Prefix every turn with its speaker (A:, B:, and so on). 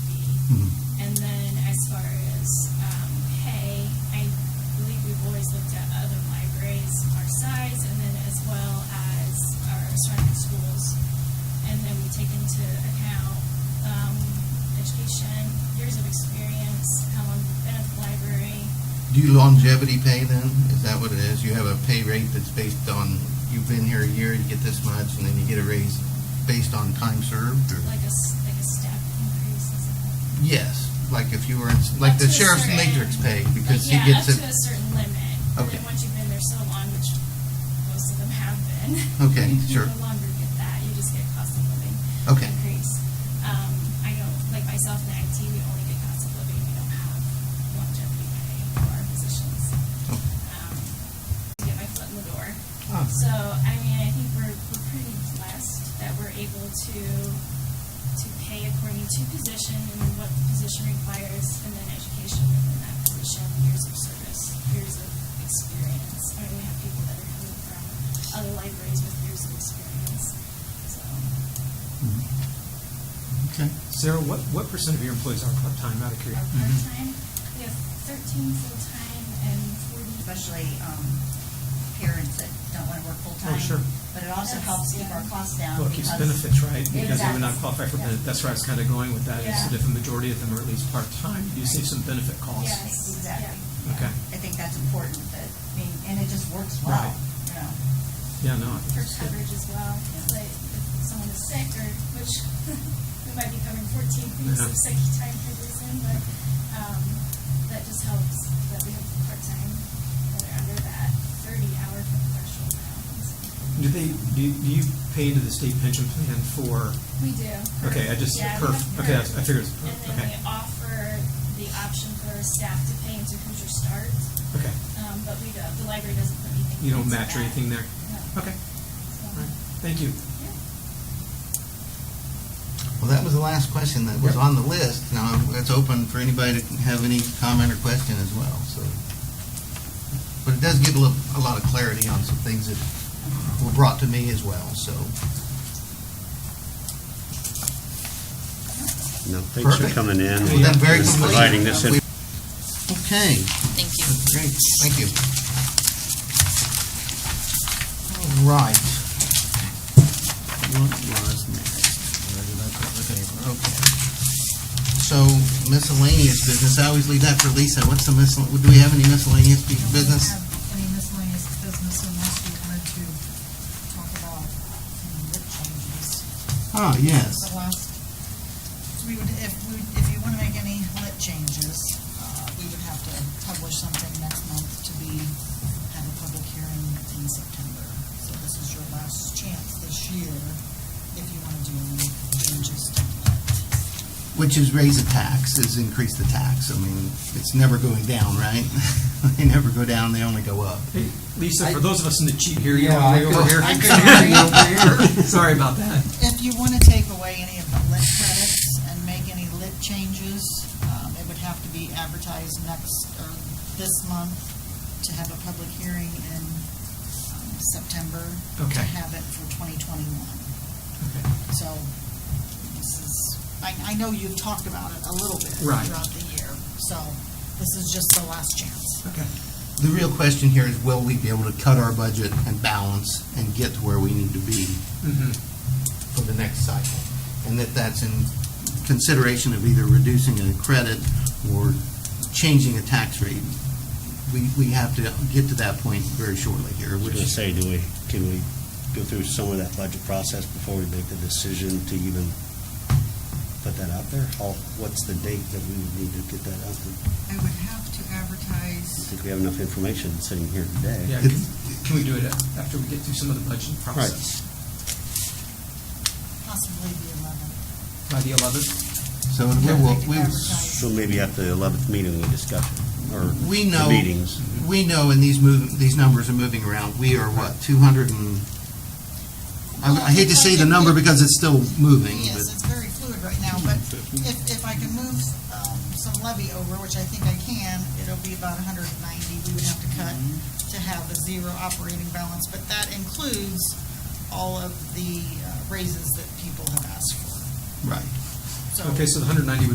A: um, um,
B: Do you longevity pay then? Is that what it is? You have a pay rate that's based on, you've been here a year, you get this much, and then you get a raise based on time served? or-
A: Like a, s- like a step increase, is it?
B: Yes, like if you were, in like
A: Up to
B: the
A: a
B: sheriff's
A: certain-
B: matrix pay, because he
A: like,
B: gets
A: Yeah, up to
B: it.
A: a certain limit. And
B: Okay.
A: then once you've been there so long, which most of them have been.
B: Okay,
A: you
B: sure.
A: No longer get that, you just get cost of living.
B: Okay.
A: Increase. Um, I know, like myself in IT, we only get cost of living, we don't have longevity pay for our positions.
B: Oh.
A: Um, To get my foot in the door.
B: Ah.
A: So, I mean, I think we're, we're pretty blessed that we're able to to pay according to position and what the position requires, and then education within that position, years of service, years of experience. I mean, we have people that are coming from other libraries with years of experience, so.
B: Okay.
C: Sarah, what, what percent of your employees are part-time out of
A: Our
C: curiosity?
A: part-time, we have thirteen full-time and forty.
D: especially um, parents that don't want to work full-time.
C: Oh, sure.
D: But it also
A: That's-
D: helps keep our costs down.
C: Well, it keeps
D: because-
C: benefits, right? Because they would not
D: Exactly.
C: qualify for
D: Yeah.
C: benefit. That's where I was kind of going with that, is that
A: Yeah.
C: if a majority of them are at least part-time, you save some benefit costs.
A: Yes.
D: Exactly.
C: Yeah. Okay.
D: I think that's important, that, I mean, and it just works well,
C: Right.
D: you know.
C: Yeah, no, I think
A: for
C: that's good.
A: coverage as well. Like if someone is sick or, which we might be covering fourteen weeks of
C: Yeah.
A: sick time for this in, but, um, that just helps that we have part-time that are under that thirty-hour threshold now.
C: Do they, do you- do you pay into the state pension plan for,
A: We do.
C: Okay, I just-
A: Yeah, we
C: perf.
A: have
C: Okay, I-
A: perf.
C: I figured it was perf.
A: And then
C: Okay.
A: we offer the option for staff to pay into Hoosier Start,
C: okay,
A: um, but we don't, the library doesn't put anything.
C: you don't
A: into
C: match or
A: that.
C: anything there?
A: No.
C: Okay,
A: So,
C: all right, thank you.
A: yeah.
B: Well, that was the last question that was
C: Yep.
B: on the list. Now, it's open for anybody to have any comment or question as well, so. But it does give a little, a lot of clarity on some things that were brought to me as well, so.
E: No, thanks for
B: Perfect.
E: coming in
B: Well, then,
E: and
B: very complete.
E: providing this information.
B: Okay.
F: Thank you.
B: Great, thank you. All right. What was next? Where did I put the paper? Okay. So miscellaneous business, I always leave that for Lisa. What's the miscel, do we have any miscellaneous be- business?
G: don't have Any miscellaneous business unless you wanted to talk about any rip changes.
B: Ah, yes.
G: The last, uh, so we would, if, we if you want to make any lit changes, uh, we would have to publish something next month to be, have a public hearing in September. So this is your last chance this year if you want to do any changes to lit.
B: Which is raise a tax, is increase the tax. I mean, it's never going down, right? They never go down, they only go up.
C: Hey, Lisa,
B: I-
C: for those of us in the cheap here, you
B: Yeah, I
C: want to over
B: could-
C: here?
B: I could hear you over
C: Sorry about that.
G: If you want to take away any of the lit credits and make any lit changes, um, it would have to be advertised next, or this month, to have a public hearing in um, September. To
C: Okay.
G: have it for 2021.
C: Okay.
G: So this is, I, I know you've talked about it a little bit
C: Right.
G: throughout the year, so this is just the last chance.
C: Okay.
B: The real question here is, will we be able to cut our budget and balance and get to where we need to be
C: Mhm.
B: for the next cycle? And that that's in consideration of either reducing a credit or changing a tax rate. We, we have to get to that point very shortly here,
E: I was
B: which
E: gonna
B: is,
E: say, do we, can we go through some of that budget process before we make the decision to even put that out there? How, what's the date that we would need to get that out there? I
G: I would have to
E: don't
G: advertise.
E: think we have enough information sitting here today.
C: Yeah, can can we do it after we get through some of the budget process?
G: Possibly the 11th.
C: By the eleventh?
B: so we will, we will
E: So maybe at the eleventh meeting, we discuss it, or
B: We
E: the
B: know-
E: meetings.
B: We know, and these move, these numbers are moving around, we are what, two hundred and, I I hate to say the number because it's still moving, but,
G: Yes, it's very fluid right now, but if, if I can move um, some levy over, which I think I can, it'll be about hundred and ninety we would have to cut to have a zero operating balance, but that includes all of the uh, raises that people have asked for.
B: right.
G: So-
C: Okay, so the hundred ninety